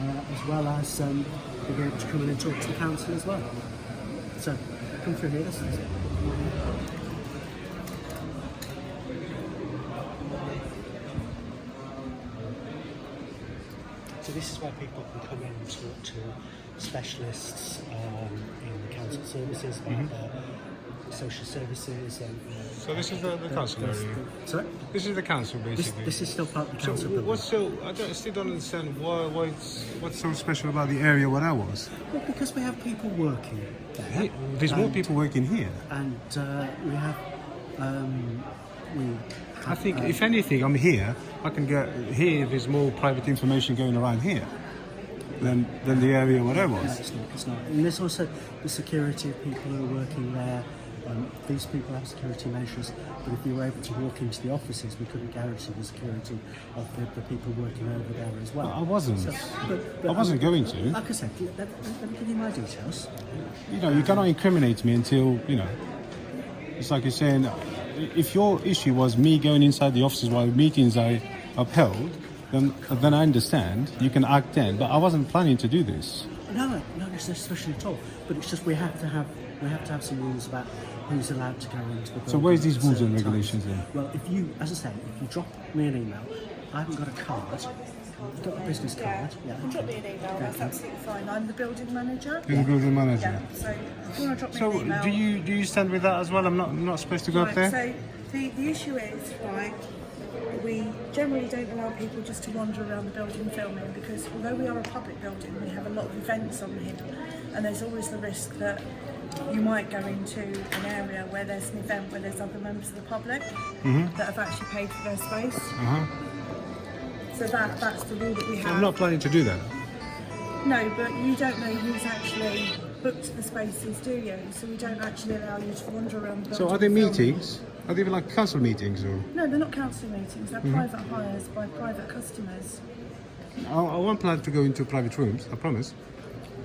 uh, as well as um, being able to come in and talk to the council as well. So come through here, listen. So this is where people can come in and talk to specialists um, in council services, about their social services and... Uh, So this is the- the council area? Sorry? This is the council, This, basically. this is still part of the so council building. what's so? I, don't, I still don't understand why. Why it's what's so special about the area where I was? Well, because we have people working there. There's more And- people working here. And uh, we have, um, we I have, think, uh, if anything, I'm here. I can get here. There's more private information going around here than than the area where I no, was. it's not, it's not. And there's also the security of people who are working there. Um, these people have security measures, but if you were able to walk into the offices, we couldn't guarantee the security of the, the people working over there as well. I wasn't. but, I wasn't going to. Like I said, let, let, let me give you my details. You know, you cannot incriminate me until you know. It's like you're saying, if your issue was me going inside the offices while meetings I upheld, then then I understand. You can act then, but I wasn't planning to do this. No, no, no, it's no discussion at all. But it's just we have to have we have to have some rules about who's allowed to go into the. building where's these at rules and certain regulations times. then? Well, if you, as I say, if you drop me an email, I haven't got a card. I've got a business Yeah, card. Yeah. drop me an email. That's absolutely fine. I'm the building manager. You're the building manager. Yeah. So if you want to drop me So an email. do you do you stand with that as well? I'm not I'm not supposed to go up Right, there. So the, the issue is, right, we generally don't allow people just to wander around the building filming because although we are a public building, we have a lot of events on here and there's always the risk that you might go into an area where there's an event where there's other members of the public Mm-hmm. that have actually paid for their space. Uh-huh. So that, that's the rule that we have. I'm not planning to do that. No, but you don't know who's actually booked the spaces, do you? So we don't actually allow you to wander around the building. So are there filming. meetings? Are they even like council meetings or? No, they're not council meetings. Mm-hmm. They're private hires by private customers. I, I won't plan to go into private rooms. I promise.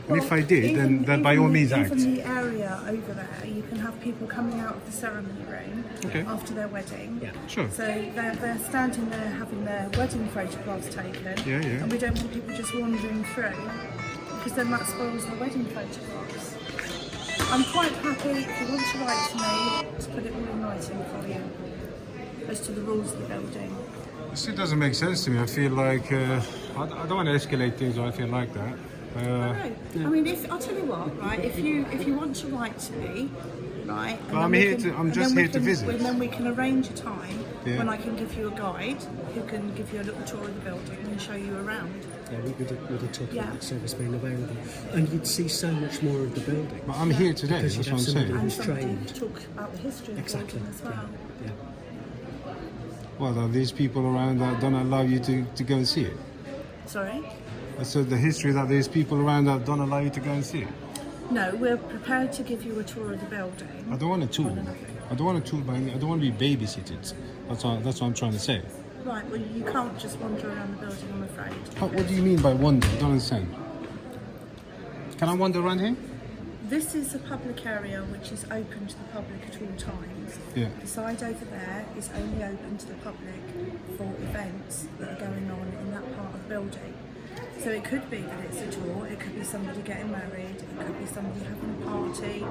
And if Well, I did, then even- then by all even- means act. Even the area over there, you can have people coming out of the ceremony room Okay. after their wedding. Yeah. Sure. So they're, they're standing there having their wedding photographs taken. Yeah, yeah. And we don't want people just wandering through because then that spoils the wedding photographs. I'm quite happy if you want to write to me to put it all in writing for you as to the rules of the building. It still doesn't make sense to me. I feel like uh, I, I don't want to escalate things or anything like that. Uh, No, I mean, if I'll tell you what, right? If you if you want to write to me, right? and I'm then we here to- I'm and just then we here to can- visit. And then we can arrange a time Yeah. when I can give you a guide who can give you a little tour of the building and show you around. Yeah, we, we did, we did talk Yeah. about the service being available, and you'd see so much more of the building. but I'm here today. Because That's you what have somebody I'm saying. And who's somebody trained. to talk about the history of the Exactly. building as Yeah. well. yeah. Well, there are these people around that don't allow you to, to go and see it. Sorry. I said the history that there's people around that don't allow you to go and see it. No, we're prepared to give you a tour of the building. I don't want a tool. I don't want a tool by any, I don't want to be babysitted. That's what, that's what I'm trying to say. Right. Well, you can't just wander around the building. I'm afraid. How, what do you mean by wander? I don't understand. Can I wander around here? This is a public area which is open to the public at all times. Yeah. The side over there is only open to the public for events that are going on in that part of the building. So it could be that it's a tour, it could be somebody getting married, it could be somebody having a party,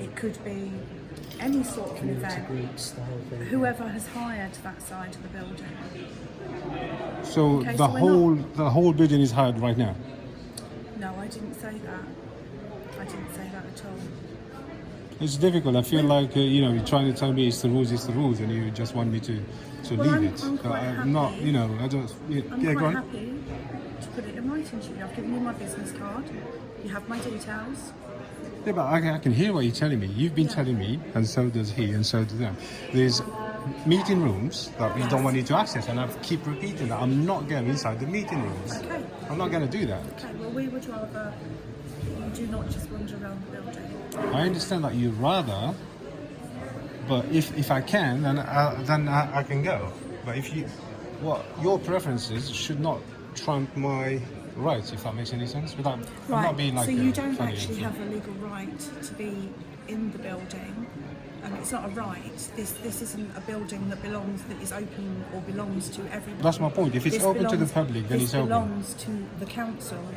it could be any sort of an Community event. groups, the whole thing. Whoever has hired that side of the building. So Okay, the so we're whole the whole building is hired right now. No, I didn't say that. I didn't say that at all. It's difficult. I feel like uh, you know you're trying to tell me it's the rules, it's the rules, and you just want me to to Well, leave I'm- it. I'm But quite I'm not. happy. You know, I don't. Yeah, I'm yeah, go quite on. happy to put it in writing to you. I've given you my business card. You have my details. Yeah, but I, can- I can hear what you're telling me. You've been telling me, and so does he, and so do them. There's meeting rooms that we don't want you to access, and I keep repeating that I'm not going inside the meeting rooms. Okay. I'm not going to do that. Okay, well, we would rather you do not just wander around the building. I understand that you'd rather, but if, if I can, then I, then I, I can go. But if you, what your preferences should not trump my rights, if that makes any sense. Without I'm not being like so a you don't funny- actually have a legal right to be in the building. Um, it's not a right. This this isn't a building that belongs that is open or belongs to everyone. That's my point. If it's This open to the belongs- public, then this it's open. belongs to the council